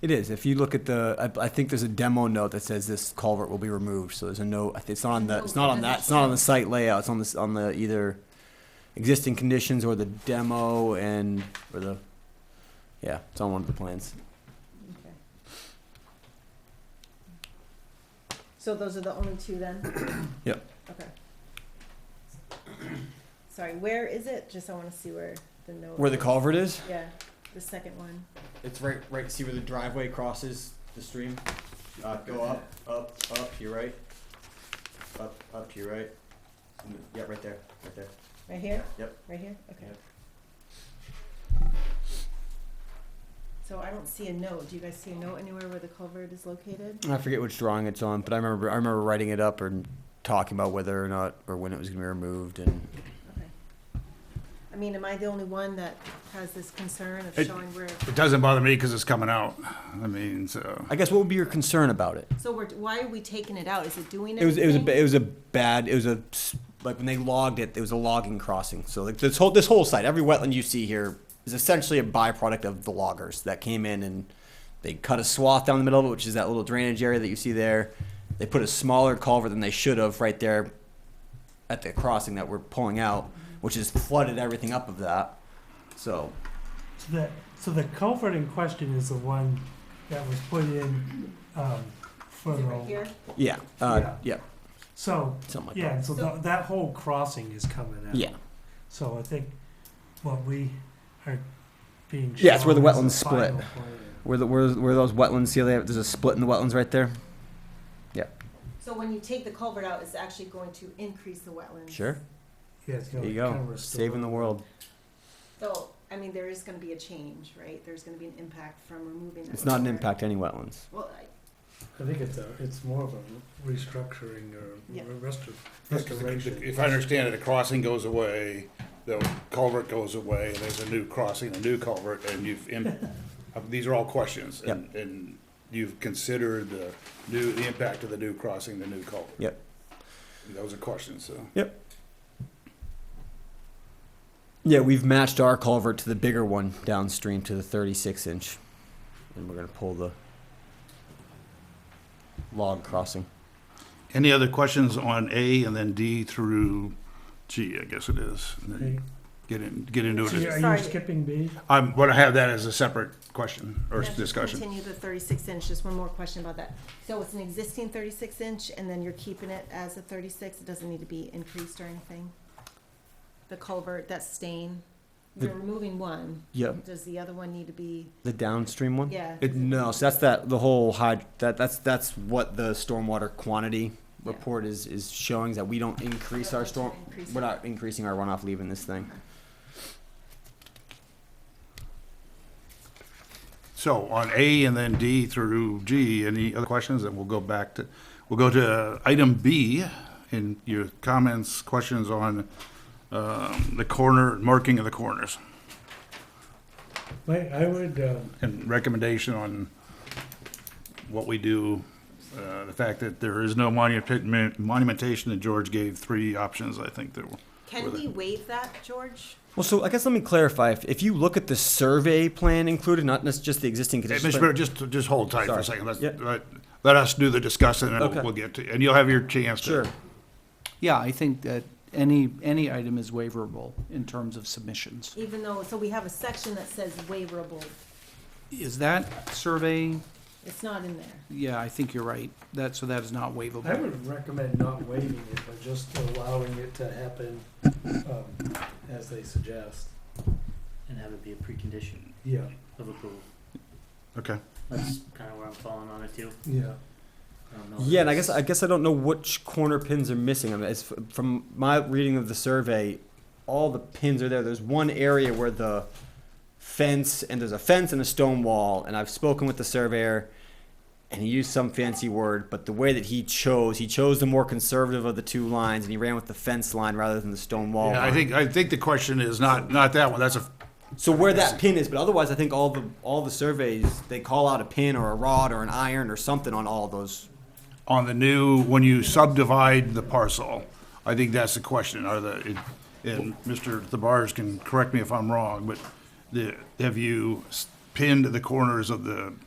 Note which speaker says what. Speaker 1: It is. If you look at the, I, I think there's a demo note that says this culvert will be removed. So there's a note. I think It's not on the. It's not on that. It's not on the site layout. It's on this. On the either existing conditions or the demo and or the. Yeah, it's on one of the plans.
Speaker 2: So those are the only two then?
Speaker 1: Yep.
Speaker 2: Okay. Sorry, where is it? Just I wanna see where the note.
Speaker 1: Where the
Speaker 2: is.
Speaker 1: culvert is?
Speaker 2: Yeah, the second one.
Speaker 3: It's right, right. See where the driveway crosses the stream? Uh, go up, up, up. You're right. Up, up. You're right. Mm, Yeah, right there, right there.
Speaker 2: Right here?
Speaker 3: Yep.
Speaker 2: Right here? Okay.
Speaker 3: Yep.
Speaker 2: So I don't see a note. Do you guys see a note anywhere where the culvert is located?
Speaker 1: I forget which drawing it's on, but I remember I remember writing it up and talking about whether or not or when it was going to be removed and
Speaker 2: Okay. I mean, am I the only one that has this concern of
Speaker 4: It-
Speaker 2: showing where,
Speaker 4: It doesn't bother me because it's coming out. I mean, so.
Speaker 1: I guess what would be your concern about it?
Speaker 2: so we're, why are we taking it out? Is it doing
Speaker 1: It was it was a
Speaker 2: anything?
Speaker 1: ba- it was a bad it was a s- like when they logged it it was a logging crossing. So like this whole this whole site every wetland you see here is essentially a byproduct of the loggers that came in and they cut a swath down the middle of it, which is that little drainage area that you see there. They put a smaller culvert than they should have right there at the crossing that we're pulling out, which has flooded everything up of that. So
Speaker 5: So the, so the culvert in question is the one that was put in, um, for
Speaker 2: Is it
Speaker 5: the.
Speaker 2: right here?
Speaker 1: yeah, uh, yeah.
Speaker 5: So,
Speaker 1: something like
Speaker 5: yeah, and so
Speaker 2: So-
Speaker 5: tha- that whole crossing is coming out.
Speaker 1: that. Yeah,
Speaker 5: So I think what we are being.
Speaker 1: Yeah, it's where the
Speaker 5: shown
Speaker 1: wetlands
Speaker 5: is the
Speaker 1: split.
Speaker 5: final plan.
Speaker 1: where the where where those wetlands see they have, there's a split in the wetlands right there.
Speaker 2: So when you take the culvert out, it's actually going to increase the wetlands?
Speaker 1: Sure,
Speaker 5: Yeah, it's
Speaker 1: there
Speaker 5: gonna
Speaker 1: you
Speaker 5: kind
Speaker 1: go,
Speaker 5: of restore.
Speaker 1: saving the world.
Speaker 2: So, I mean, there is gonna be a change, right? There's gonna be an impact from removing that.
Speaker 1: It's not an
Speaker 2: culvert.
Speaker 1: impact to any wetlands.
Speaker 2: Well, I-
Speaker 5: I think it's a, it's more of a restructuring or
Speaker 2: Yeah.
Speaker 5: restor-
Speaker 4: Yes, 'cause the-
Speaker 5: restoration.
Speaker 4: If I understand it, the crossing goes away, the culvert goes away, and there's a new crossing, a new culvert, and you've, im- uh, these are all questions.
Speaker 1: Yep.
Speaker 4: and- And you've considered the new, the impact of the new crossing, the new culvert.
Speaker 1: Yep.
Speaker 4: Those are questions, so.
Speaker 1: Yeah, we've matched our culvert to the bigger one downstream to the 36 inch. And we're going to pull the log crossing.
Speaker 4: Any other questions on A and then D through G, I guess it is? and then
Speaker 5: Okay.
Speaker 4: Get in, get into
Speaker 5: So you-
Speaker 4: it.
Speaker 5: Are
Speaker 2: Sorry.
Speaker 5: you skipping B?
Speaker 4: I'm, gonna have that as a separate question or
Speaker 2: Let's
Speaker 4: discussion.
Speaker 2: Continue the thirty-six inch, just one more question about that. So it's an existing thirty-six inch, and then you're keeping it as a thirty-six, it doesn't need to be increased or anything? The culvert, that stain, you're
Speaker 1: The-
Speaker 2: removing one,
Speaker 1: Yep.
Speaker 2: does the other one need to be,
Speaker 1: The downstream one?
Speaker 2: yeah?
Speaker 1: It, no, so that's that the whole hyd- that that's that's what the stormwater quantity
Speaker 2: Yeah.
Speaker 1: report is is showing is that we don't increase our storm
Speaker 2: Increase
Speaker 1: we're
Speaker 2: it.
Speaker 1: not increasing our runoff leaving this thing.
Speaker 4: So on A and then D through G, any other questions? And we'll go back to, we'll go to item B in your comments, questions on um, the corner, marking of the corners
Speaker 5: Wait, I would, um,
Speaker 4: and recommendation on what we do. uh, The fact that there is no monument, monumentation that George gave three options, I think there were.
Speaker 2: Can we waive that, George?
Speaker 1: Well, so I guess let me clarify. If, if you look at the survey plan included, not nec- just the existing
Speaker 4: Hey,
Speaker 1: conditions.
Speaker 4: Mr.
Speaker 1: but-
Speaker 4: Mayor, just, just hold tight for
Speaker 1: Sorry.
Speaker 4: a second. Let's,
Speaker 1: Yeah.
Speaker 4: let, let us do the discussion and
Speaker 1: Okay.
Speaker 4: we'll get to, and you'll have your chance to.
Speaker 1: Sure.
Speaker 6: Yeah, I think that any, any item is waiverable in terms of submissions.
Speaker 2: Even though, so we have a section that says waiverable,
Speaker 6: Is that survey,
Speaker 2: it's not in there.
Speaker 6: yeah, I think you're right, that, so that is not
Speaker 5: I
Speaker 6: waivable.
Speaker 5: would recommend not waiving it, but just allowing it to happen, um, as they suggest.
Speaker 7: and have it be a precondition
Speaker 5: Yeah,
Speaker 7: of approval.
Speaker 4: Okay.
Speaker 7: That's kind of where I'm falling on it too.
Speaker 5: yeah.
Speaker 7: I don't know if
Speaker 1: Yeah, and I
Speaker 7: it's-
Speaker 1: guess I guess I don't know which corner pins are missing. I mean, as f- from my reading of the survey, all the pins are there. There's one area where the fence and there's a fence and a stone wall. And I've spoken with the surveyor, and he used some fancy word, but the way that he chose, he chose the more conservative of the two lines, and he ran with the fence line rather than the stone wall.
Speaker 4: Yeah, I
Speaker 1: line.
Speaker 4: think, I think the question is not, not that one. That's a,
Speaker 1: So where that pin is, but otherwise, I think all the all the surveys they call out a pin or a rod or an iron or something on all those.
Speaker 4: on the new, when you subdivide the parcel, I think that's the question. Are the, it- and Mr. Thabars can correct me if I'm wrong, but the, have you s- pinned the corners of the